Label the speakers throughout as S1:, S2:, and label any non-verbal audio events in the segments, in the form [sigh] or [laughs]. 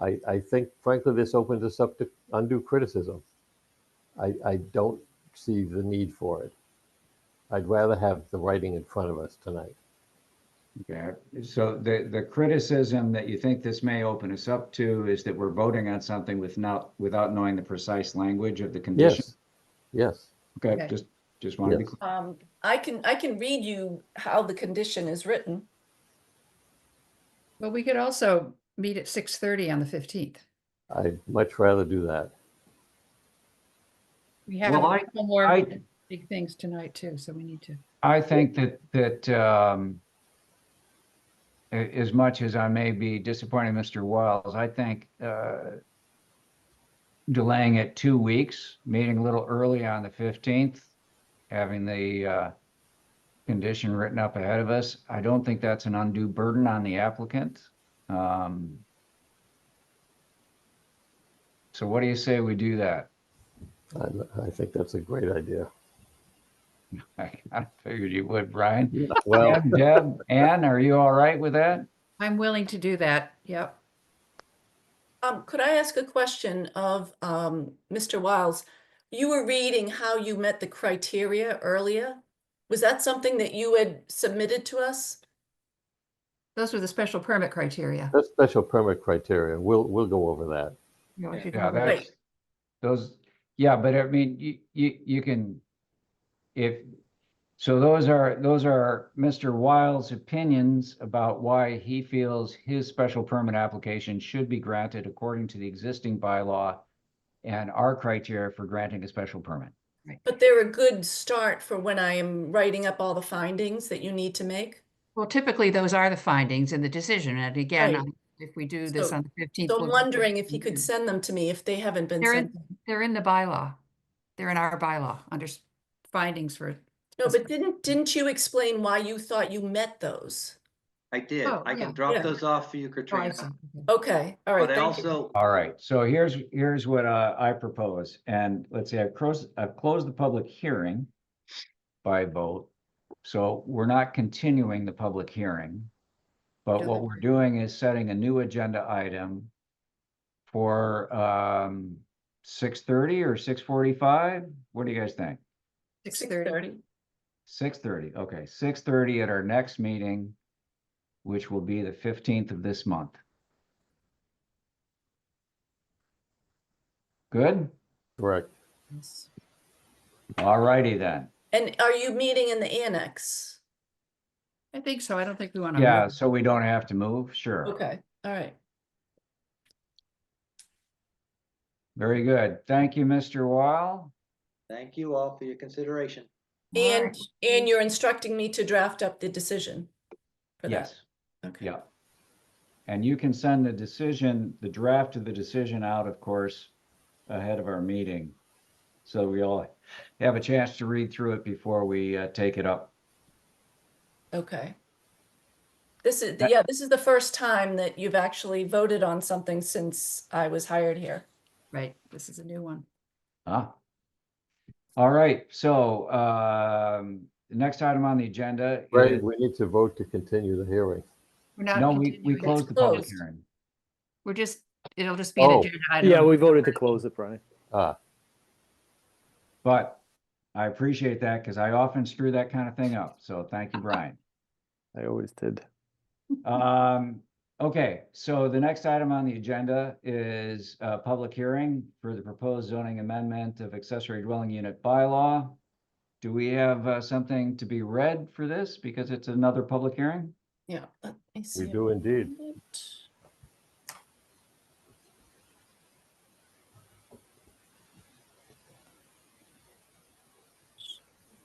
S1: I, I think frankly, this opens us up to undue criticism. I, I don't see the need for it. I'd rather have the writing in front of us tonight.
S2: Yeah, so the, the criticism that you think this may open us up to is that we're voting on something with not, without knowing the precise language of the condition?
S1: Yes, yes.
S2: Okay,
S3: Okay.
S2: just, just want to be,
S1: Yes.
S2: clear.
S3: Um, I can, I can read you how the condition is written.
S4: But we could also meet at six thirty on the fifteenth.
S1: I'd much rather do that.
S4: We have a
S2: Well, I-
S4: couple more
S2: I-
S4: big things tonight too, so we need to.
S2: I think that, that, um, a- as much as I may be disappointing Mr. Wiles, I think, uh, delaying it two weeks, meeting a little early on the 15th, having the, uh, condition written up ahead of us, I don't think that's an undue burden on the applicant. Um, So what do you say we do that? [laughs]
S1: I, I think that's a great [laughs] idea.
S2: I figured you would, Brian.
S1: Well,
S2: Deb, Deb, Ann, are you all right with that?
S4: I'm willing to do that. Yep.
S3: Um, could I ask a question of, um, Mr. Wiles? You were reading how you met the criteria earlier. Was that something that you had submitted to us?
S4: Those were the special permit criteria.
S1: that's special permit criteria. We'll, we'll go over that.
S4: You know, if you
S2: Yeah,
S4: follow-
S2: that's, those, yeah, but I mean, you, you, you can, if, so those are, those are Mr. Wiles' opinions about why he feels his special permit application should be granted according to the existing bylaw and our criteria for granting a special permit.
S3: But they're a good start for when I am writing up all the findings that you need to make.
S4: Well, typically, those are the findings in the decision, and again,
S3: Right.
S4: um, if we do this
S3: So-
S4: on the fifteenth.
S3: So I'm wondering if he could send them to me if they haven't been
S4: Mm-hmm. They're
S3: sent.
S4: in, they're in the bylaw. They're in our bylaw, under s- findings for,
S3: No, but didn't, didn't you explain why you thought you met those?
S5: I did.
S4: Oh,
S5: I
S4: yeah.
S5: can
S3: Yeah.
S5: drop those off for you,
S4: oh, I
S5: Katrina.
S4: see. Okay.
S3: Okay, all right,
S5: But I
S3: thank you.
S5: also,
S2: All right, so here's, here's what uh, I propose, and let's say I've closed, I've closed the public hearing by vote. So we're not continuing the public hearing. But what
S3: Okay.
S2: we're doing is setting a new agenda item for um six thirty or six forty-five? What do you guys think?
S4: Six
S3: Six
S4: thirty.
S3: thirty.
S2: Six thirty, okay, six thirty at our next meeting, which will be the fifteenth of this month. Good?
S1: Correct.
S2: All righty then.
S3: And are you meeting in the annex?
S4: I think so. I don't think we want to.
S2: Yeah, so we don't have to move, sure.
S3: Okay, all right.
S2: Very good. Thank you, Mr. Wall.
S5: thank you all for your consideration.
S3: And, and you're instructing me to draft up the decision? for that?
S2: Yes,
S3: Okay.
S2: yeah. And you can send the decision, the draft of the decision out, of course, ahead of our meeting. So we all have a chance to read through it before we uh, take it up.
S3: Okay. This is, yeah, this is the first time that you've actually voted on something since I was hired here.
S4: Right, this is a new one.
S2: Ah. All right, so um, the next item on the agenda.
S1: Right,
S2: is-
S1: we need to vote to continue the hearing.
S4: We're not
S2: No, we, we
S4: continuing. It's
S2: closed the public
S3: closed.
S2: hearing.
S4: We're just, it'll just be an
S1: Oh,
S4: agenda item.
S6: Yeah, we voted to close it, Brian.
S1: Ah,
S2: But I appreciate that because I often screw that kind of thing up. So thank you,
S4: [laughs]
S2: Brian.
S6: I always did.
S2: Um, okay, so the next item on the agenda is a public hearing for the proposed zoning amendment of accessory dwelling unit bylaw. Do we have uh, something to be read for this because it's another public hearing?
S3: Yeah. let me see
S1: we
S3: if
S1: do
S3: I
S1: indeed.
S3: can find it.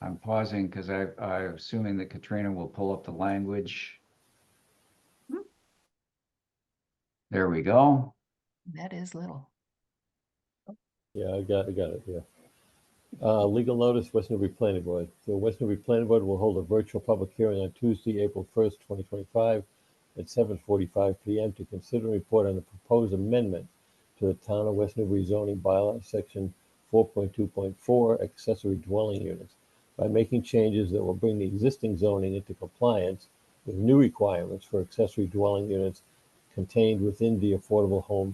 S2: I'm pausing because I, I'm assuming that Katrina will pull up the language.
S4: Hmm.
S2: There we go.
S4: That is little.
S1: Yeah, I got, I got it, yeah. Uh, legal notice, West Newbury Planning Board. The West Newbury Planning Board will hold a virtual public hearing on Tuesday, April first, twenty twenty-five at seven forty-five PM to consider and report on the proposed amendment to the Town of West Newbury zoning bylaw, section four point two point four, accessory dwelling units, by making changes that will bring the existing zoning into compliance with new requirements for accessory dwelling units contained within the Affordable Home